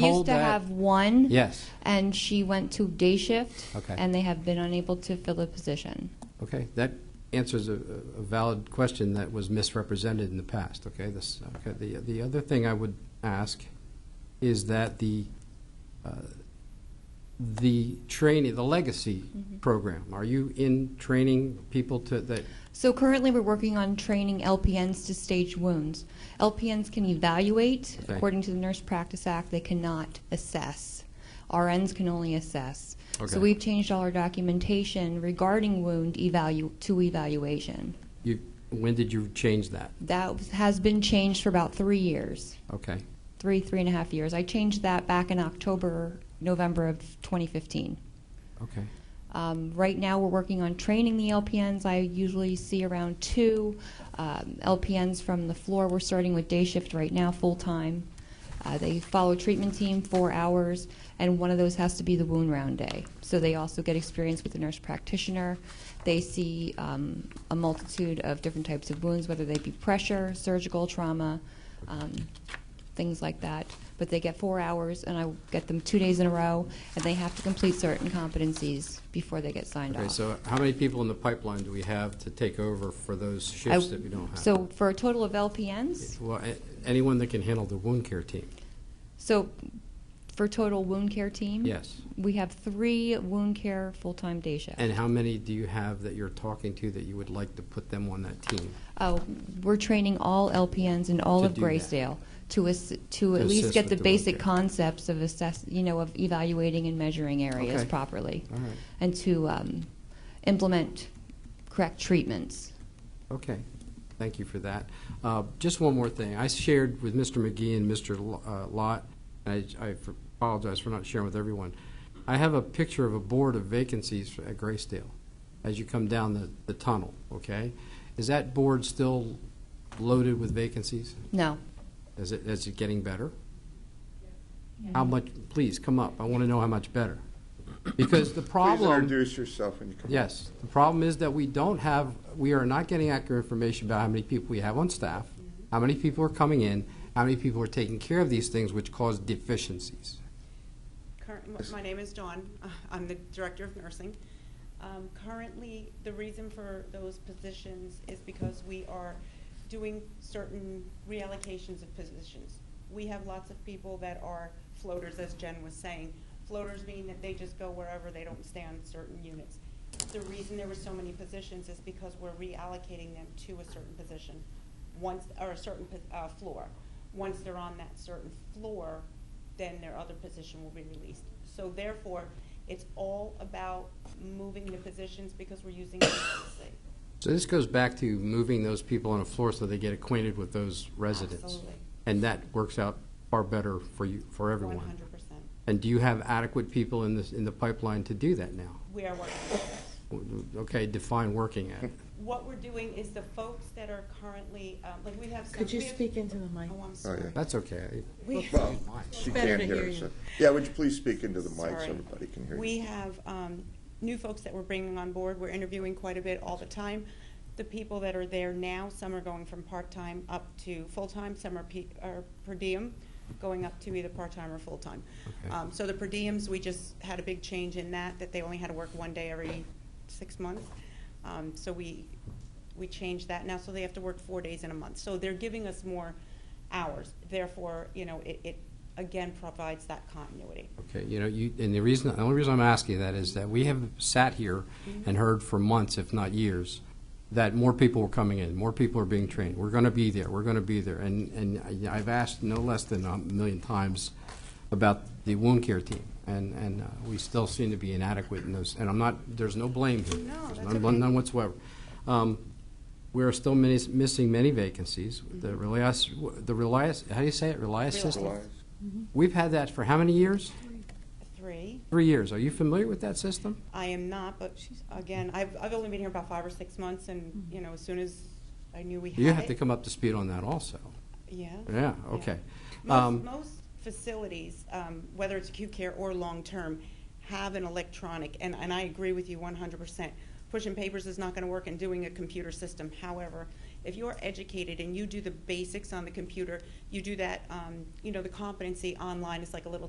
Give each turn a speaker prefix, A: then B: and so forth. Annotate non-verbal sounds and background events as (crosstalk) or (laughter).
A: We used
B: told
A: to
B: that-
A: have one.
B: Yes.
A: And she went to day shift.
B: Okay.
A: And they have been unable to fill the position.
B: Okay, that answers a, a valid question that was misrepresented in the past, okay? This, okay, the, the other thing I would ask is that the, uh, the training, the legacy
A: Mm-hmm.
B: program, are you in training people to, that,
A: So currently, we're working on training LPNs to stage wounds. LPNs can evaluate
B: Okay.
A: according to the Nurse Practice Act. They cannot assess. RNs can only assess.
B: Okay.
A: So we've changed all our documentation regarding wound evalu- to evaluation.
B: you, when did you change that?
A: That was- has been changed for about three years,
B: Okay,
A: three three and a half years. I changed that back in October, November of 2015.
B: okay,
A: Um, right now, we're working on training the LPNs. I usually see around two um, LPNs from the floor. We're starting with day shift right now, full time. Uh, they follow treatment team four hours, and one of those has to be the wound round day. So they also get experience with the nurse practitioner. They see um, a multitude of different types of wounds, whether they be pressure, surgical trauma, um, things like that. But they get four hours, and I get them two days in a row, and they have to complete certain competencies before they get signed
B: okay,
A: off.
B: so how many people in the pipeline do we have to take over for those shifts
A: I-
B: that we don't have?
A: So for a total of LPNs,
B: Well, a- anyone that can handle the wound care team,
A: so for total wound care team,
B: yes.
A: we have three wound care full-time day shifts.
B: And how many do you have that you're talking to that you would like to put them on that team?
A: Oh, we're training all LPNs in all
B: To
A: of
B: do that.
A: Graysdale to ass- to
B: To
A: at least
B: assist
A: get
B: with
A: the
B: the wound
A: basic
B: care.
A: concepts of assess, you know, of evaluating and measuring areas
B: Okay.
A: properly.
B: All right.
A: And to um, implement correct treatments.
B: Okay, thank you for that. Uh, Just one more thing. I shared with Mr. McGee and Mr. L- uh, Lott, and I I f- apologize for not sharing with everyone. I have a picture of a board of vacancies for- at Graysdale as you come down the the tunnel, okay? Is that board still loaded with vacancies?
A: No,
B: Is it, is it getting better? How much, please, come up. I want to know how much better. Because the
C: Please
B: problem.
C: introduce yourself when you come. up.
B: Yes. The problem is that we don't have, we are not getting accurate information about how many people we have on staff, how many people are coming in, how many people are taking care of these things which cause deficiencies.
D: Current, my name is Dawn. (laughs) Uh, I'm the Director of Nursing. Um, Currently, the reason for those positions is because we are doing certain reallocations of positions. We have lots of people that are floaters, as Jen was saying. Floaters mean that they just go wherever, they don't stay on certain units. The reason there were so many positions is because we're reallocating them to a certain position once, or a certain po- uh, floor. Once they're on that certain floor, then their other position will be released. So therefore, it's all about moving the positions because we're using vacancy.
B: So this goes back to moving those people on a floor so they get acquainted with those residents.
D: Absolutely.
B: And that works out far better for you, for everyone.
D: One hundred percent.
B: And do you have adequate people in this, in the pipeline to do that now?
D: We are working on this.
B: Okay, define working at.
D: What we're doing is the folks that are currently, um, like, we have some.
E: Could you
D: we have-
E: speak into the mic?
D: Oh, I'm sorry.
B: That's okay.
E: We-
C: Well, she
E: better
C: can't
E: to
C: hear
E: hear
C: us.
E: you.
C: Yeah, would you please speak into the mic so
D: Sorry.
C: everybody can hear you?
D: We have um, new folks that we're bringing on board. We're interviewing quite a bit all the time. The people that are there now, some are going from part-time up to full-time, some are pe- are per diem, going up to either part-time or full-time.
B: Okay.
D: Um, So the per diems, we just had a big change in that, that they only had to work one day every six months. Um, So we, we changed that now, so they have to work four days in a month. So they're giving us more hours. Therefore, you know, it, it again provides that continuity.
B: Okay, you know, you, and the reason, the only reason I'm asking that is that we have sat here and heard for months, if not years, that more people were coming in, more people are being trained. We're going to be there, we're going to be there. And, and I- I've asked no less than a million times about the wound care team, and, and uh, we still seem to be inadequate in those, and I'm not, there's no blame here.
D: No,
B: There's
D: that's
B: none-
D: okay.
B: None whatsoever. Um, We are still many- missing many vacancies. The
D: Mm-hmm.
B: Relias, the Relias, how do you say it, Relias system?
C: Otherwise,
B: We've had that for how many years?
D: Three,
B: Three years. Are you familiar with that system?
D: I am not, but again, I've, I've only been here about five or six months, and, you know, as soon as I knew we had it.
B: You have to come up to speed on that also.
D: Yeah.
B: Yeah, okay.
D: Most,
B: Um,
D: most facilities, um, whether it's acute care or long-term, have an electronic, and, and I agree with you one hundred percent. Pushing papers is not gonna work and doing a computer system. However, if you're educated and you do the basics on the computer, you do that, um, you know, the competency online is like a little